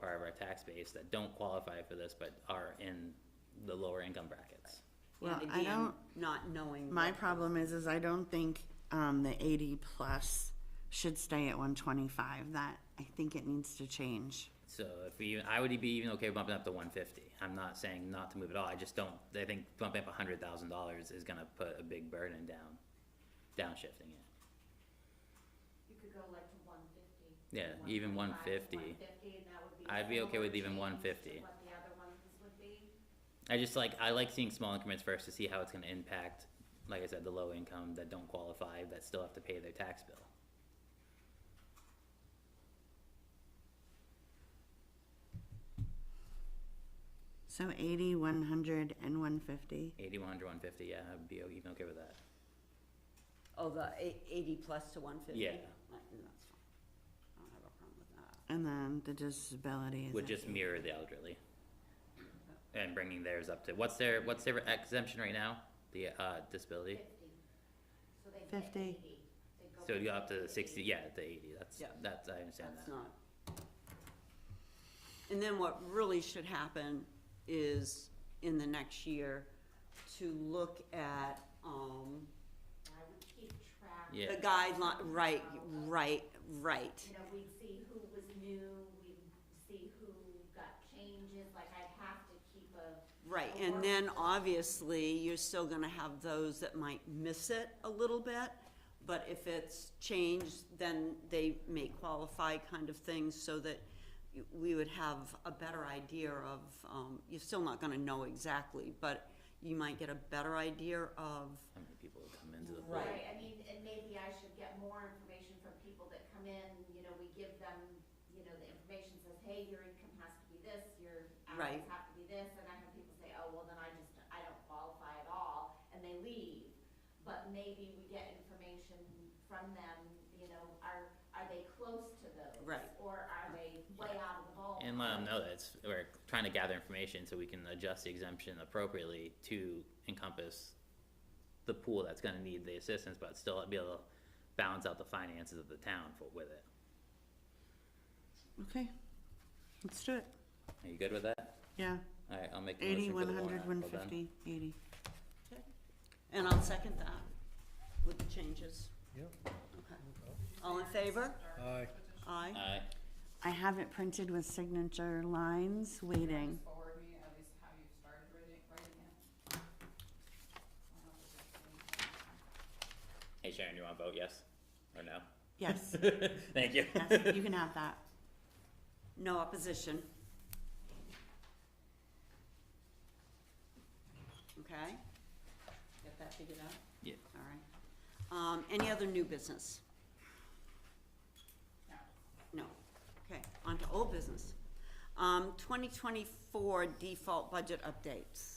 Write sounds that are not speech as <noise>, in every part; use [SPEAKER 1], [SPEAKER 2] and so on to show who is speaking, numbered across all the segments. [SPEAKER 1] part of our tax base that don't qualify for this, but are in the lower income brackets.
[SPEAKER 2] Well,
[SPEAKER 3] And
[SPEAKER 2] I
[SPEAKER 3] again,
[SPEAKER 2] don't,
[SPEAKER 3] not knowing.
[SPEAKER 2] my
[SPEAKER 3] what-
[SPEAKER 2] problem is, is I don't think, um, the eighty plus should stay at one twenty-five, that, I think it needs to change.
[SPEAKER 1] So if we, I would be even okay bumping up to one fifty. I'm not saying not to move at all, I just don't, I think bumping up a hundred thousand dollars is gonna put a big burden down, downshifting it.
[SPEAKER 4] You could go like to one fifty.
[SPEAKER 1] Yeah, even 150.
[SPEAKER 4] One fifty, and that would be.
[SPEAKER 1] I'd be okay with even
[SPEAKER 4] similar change
[SPEAKER 1] 150.
[SPEAKER 4] to What the other ones would be.
[SPEAKER 1] I just like, I like seeing small increments first to see how it's gonna impact, like I said, the low income that don't qualify, that still have to pay their tax bill.
[SPEAKER 2] So eighty, one hundred, and one fifty.
[SPEAKER 1] Eighty, one hundred, one fifty, yeah, I'd be o- even okay with that.
[SPEAKER 3] Oh, the eight- eighty plus to one fifty?
[SPEAKER 1] Yeah.
[SPEAKER 3] That's fine. I don't have a problem with that.
[SPEAKER 2] And then the disability is
[SPEAKER 1] Would
[SPEAKER 2] at
[SPEAKER 1] just
[SPEAKER 2] 80.
[SPEAKER 1] mirror the elderly. And bringing theirs up to, what's their, what's their exemption right now? The, uh, disability?
[SPEAKER 4] Fifty. So they'd get
[SPEAKER 2] 50.
[SPEAKER 4] 80. They'd go
[SPEAKER 1] So
[SPEAKER 4] from
[SPEAKER 1] you go up to
[SPEAKER 4] 50
[SPEAKER 1] the sixty, yeah, the eighty, that's,
[SPEAKER 3] Yeah.
[SPEAKER 1] that's, I understand
[SPEAKER 3] That's
[SPEAKER 1] that.
[SPEAKER 3] not. And then what really should happen is in the next year to look at, um,
[SPEAKER 4] I would keep track.
[SPEAKER 1] Yeah.
[SPEAKER 3] the guideline, right, right, right.
[SPEAKER 4] You know, we'd see who was new, we'd see who got changes, like I'd have to keep a.
[SPEAKER 3] Right,
[SPEAKER 4] a
[SPEAKER 3] and
[SPEAKER 4] work-
[SPEAKER 3] then obviously, you're still gonna have those that might miss it a little bit, but if it's changed, then they may qualify kind of things, so that you- we would have a better idea of, um, you're still not gonna know exactly, but you might get a better idea of,
[SPEAKER 1] How many people would come into the pool?
[SPEAKER 3] Right.
[SPEAKER 4] I mean, and maybe I should get more information from people that come in, you know, we give them, you know, the information says, hey, your income has to be this, your hours
[SPEAKER 3] Right.
[SPEAKER 4] have to be this, and I have people say, oh, well, then I just, I don't qualify at all, and they leave. But maybe we get information from them, you know, are, are they close to those?
[SPEAKER 3] Right.
[SPEAKER 4] Or are they way out of the ball?
[SPEAKER 1] And um, let them know that it's, we're trying to gather information so we can adjust the exemption appropriately to encompass the pool that's gonna need the assistance, but still be able to balance out the finances of the town for, with it.
[SPEAKER 2] Okay, let's do it,
[SPEAKER 1] Are you good with that?
[SPEAKER 2] yeah,
[SPEAKER 1] Alright, I'll make a motion
[SPEAKER 2] eighty,
[SPEAKER 1] for
[SPEAKER 2] one
[SPEAKER 1] the
[SPEAKER 2] hundred,
[SPEAKER 1] warrant
[SPEAKER 2] one
[SPEAKER 1] article then.
[SPEAKER 2] fifty, eighty.
[SPEAKER 3] and I'll second that with the changes.
[SPEAKER 5] Yep.
[SPEAKER 3] Okay. All in favor?
[SPEAKER 5] Aye.
[SPEAKER 3] Aye.
[SPEAKER 1] Aye,
[SPEAKER 2] I have it printed with signature lines, waiting.
[SPEAKER 6] Just forward me at least how you started writing, writing it. I'll have to just change that.
[SPEAKER 1] hey Sharon, you wanna vote yes or
[SPEAKER 3] <laughs>
[SPEAKER 1] no?
[SPEAKER 2] Yes,
[SPEAKER 1] Thank you. <laughs>
[SPEAKER 2] yes, you can have that.
[SPEAKER 3] No opposition. Okay? Get that figured out?
[SPEAKER 1] Yeah.
[SPEAKER 3] All right. Um, any other new business?
[SPEAKER 6] No.
[SPEAKER 3] No. Okay, on to old business. Um, twenty twenty-four default budget updates.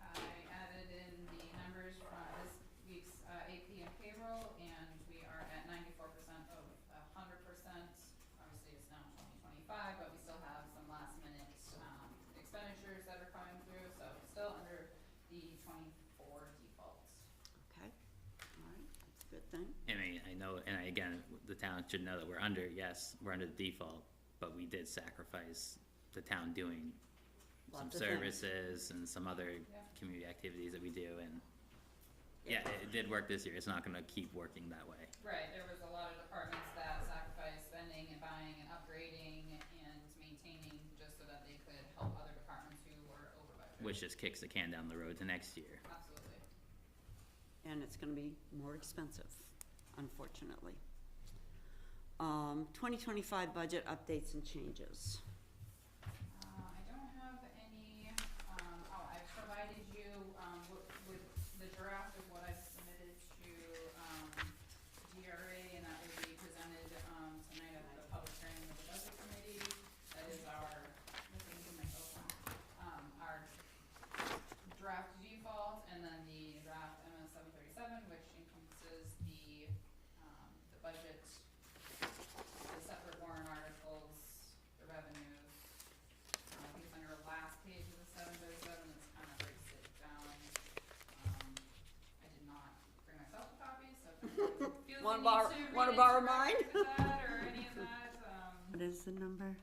[SPEAKER 6] I added in the numbers from this week's uh, AP and payroll, and we are at ninety-four percent of a hundred percent. Obviously, it's now twenty twenty-five, but we still have some last minute, um, expenditures that are coming through, so still under the twenty-four defaults.
[SPEAKER 3] Okay, all right, that's a good thing.
[SPEAKER 1] And I, I know, and I, again, the town should know that we're under, yes, we're under the default, but we did sacrifice the town doing some
[SPEAKER 3] Lots of things.
[SPEAKER 1] services and some other
[SPEAKER 6] Yeah.
[SPEAKER 1] community activities that we do and, yeah, it- it did work this year, it's not gonna keep working that way.
[SPEAKER 6] Right, there was a lot of departments that sacrificed spending and buying and upgrading and maintaining just so that they could help other departments who were over budget.
[SPEAKER 1] Which just kicks the can down the road to next year.
[SPEAKER 6] Absolutely.
[SPEAKER 3] and it's gonna be more expensive, unfortunately. Um, twenty twenty-five budget updates and changes.
[SPEAKER 6] Uh, I don't have any, um, oh, I provided you, um, with, with the draft of what I've submitted to, um, DRA, and that will be presented, um, tonight at the public hearing of the budget committee. That is our, I think in my phone, um, our draft default, and then the draft MS seven thirty-seven, which encompasses the, um, the budget, the separate warrant articles, the revenues, I think it's on your last page of the seven thirty-seven, it's kind of breaks it down. Um, I did not bring myself a copy, so
[SPEAKER 3] <laughs>
[SPEAKER 6] if anyone feels the
[SPEAKER 3] Wanna
[SPEAKER 6] need
[SPEAKER 3] borrow-
[SPEAKER 6] to read
[SPEAKER 3] wanna
[SPEAKER 6] into
[SPEAKER 3] borrow
[SPEAKER 6] reference
[SPEAKER 3] mine?
[SPEAKER 6] to that or any of that, um,
[SPEAKER 2] What is the number?